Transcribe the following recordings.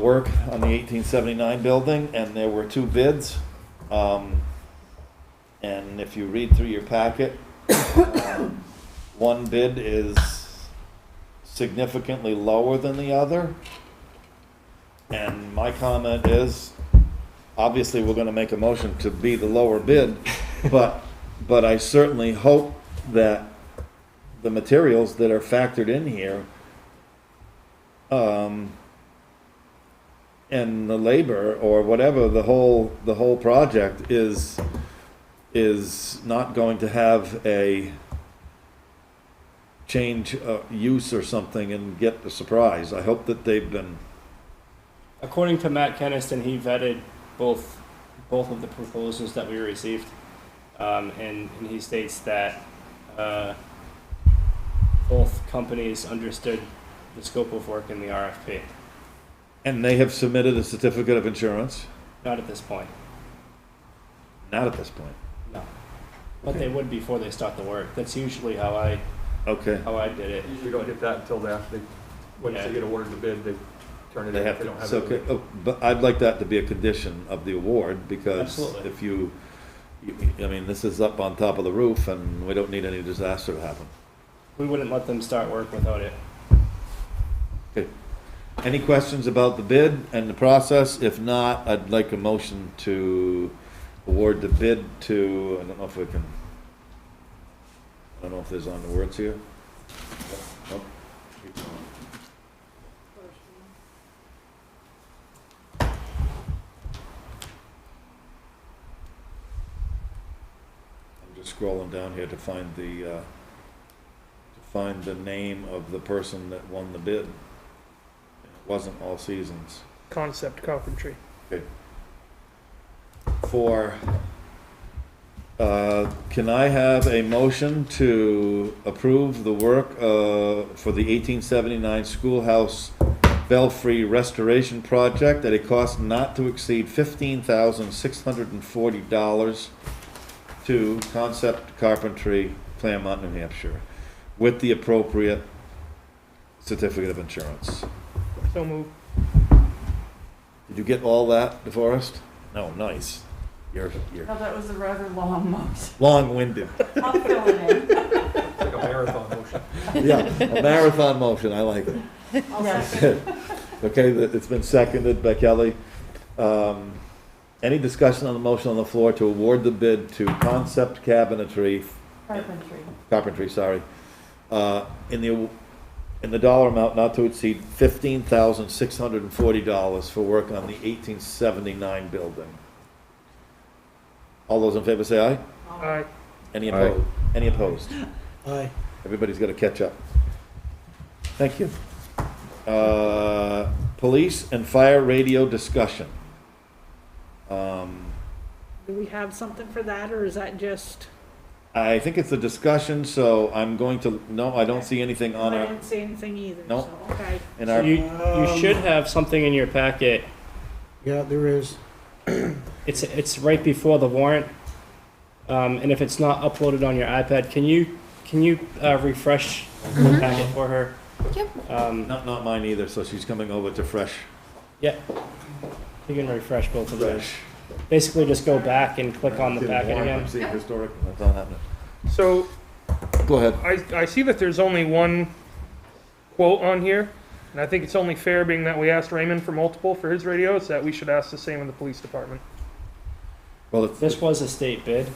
work on the 1879 building, and there were two bids. Um, And if you read through your packet, um, one bid is significantly lower than the other. And my comment is, obviously, we're gonna make a motion to be the lower bid, but, but I certainly hope that the materials that are factored in here um, and the labor or whatever the whole the whole project is is not going to have a change uh, use or something and get the surprise. I hope that they've been According to Matt Keniston, he vetted both both of the proposals that we received, um, and, and he states that uh, both companies understood the scope of work in the RFP. and they have submitted a certificate of insurance. Not at this point, Not at this point. no, but they would before they start the work. That's usually how I Okay. how I did it. Usually don't get that until after they, once Yeah. they get awarded the bid, they turn it in. They have if don't to, have so, it. okay, oh, but I'd like that to be a condition of the award, because Absolutely. if you, you- I mean, this is up on top of the roof, and we don't need any disaster to happen. We wouldn't let them start work without it. Any questions about the bid and the process? If not, I'd like a motion to award the bid to, I don't know if we can, I don't know if there's on the words here. Nope. Keep going. I'm just scrolling down here to find the, uh, to find the name of the person that won the bid. It wasn't All Seasons. concept carpentry. For, uh, can I have a motion to approve the work uh, for the 1879 schoolhouse belfry restoration project at a cost not to exceed $15,640 to Concept Carpentry, Claremont, New Hampshire, with the appropriate certificate of insurance? So move. Did you get all that, DeForest? No, nice. You're, you're No, that was a rather long motion. long-winded. I'll fill it in. It's like a marathon motion. Yeah, a marathon motion, I like it. I'll second. Okay, th- it's been seconded by Kelly. Um, Any discussion on the motion on the floor to award the bid to Concept Cabinetry, Carpentry. Carpentry, sorry, uh, in the, in the dollar amount not to exceed fifteen thousand six hundred and forty dollars for work on the eighteen seventy-nine building? All those in favor say aye? Aye. Any opposed? Any opposed? Aye. Everybody's gotta catch up. Thank you. Uh, police and fire radio discussion. Um, Do we have something for that, or is that just, I think it's a discussion, so I'm going to, no, I don't see anything Uh, on I our, didn't see anything either, Nope. so, okay. in So our, you you should have something in your packet. Yeah, there is. It's it's right before the warrant, um, and if it's not uploaded on your iPad, can you can you uh, refresh the packet for her? Yep. Um, not, not mine either, so she's coming over to fresh, you can refresh both of those. fresh. Basically, just go back and click on the Didn't packet warrant, I'm again. seeing historic, that's not happening. So Go ahead. I, I see that there's only one quote on here, and I think it's only fair, being that we asked Raymond for multiple for his radios, that we should ask the same of the police department. Well, it's, This was a state bid,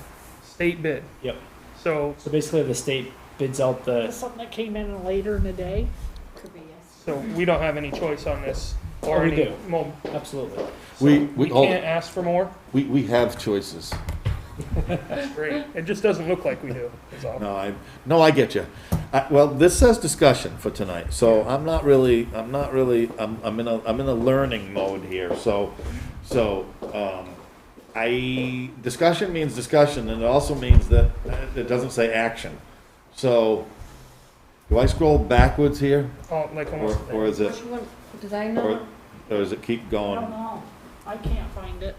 State bid. Yep. So, so basically the state bids out Is this the. something that came in later in the day? Could be yes. so we don't have any choice on this, or Oh, we any, do. well, Absolutely. so we, we we, hold- can't ask for more? we, we have choices. Great. It just doesn't look like we do, is all. No, I, no, I get you. I, well, this says discussion for tonight, so I'm not really, I'm not really, I'm, I'm in a, I'm in a learning mode here, so, so, um, I, discussion means discussion, and it also means that, uh, it doesn't say action. So, do I scroll backwards here, Oh, like or, almost. or is it, Did I or, or does it keep I going? don't know, I can't find it.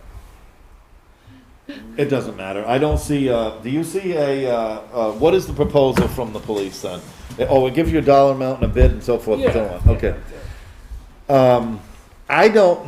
It doesn't matter. I don't see, uh, do you see a, uh, uh, what is the proposal from the police then? Oh, it gives you a dollar amount and a bid and so forth and so Yeah. on, okay. Um, I don't